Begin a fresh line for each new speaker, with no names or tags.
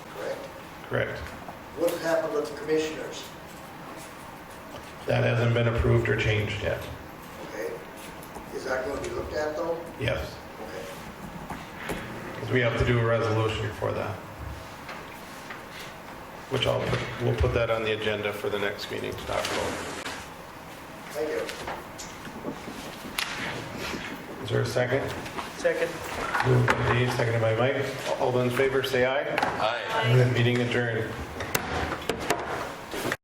Correct.
What happened with the commissioners?
That hasn't been approved or changed yet.
Okay. Is that going to be looked at though?
Yes,
Okay.
because we have to do a resolution for that. Which I'll, put we'll put that on the agenda for the next meeting, to talk about.
Thank you.
Is there a second?
Second.
Moved by Dave, seconded by Mike. All those in favor, say aye.
Aye.
Meeting adjourned.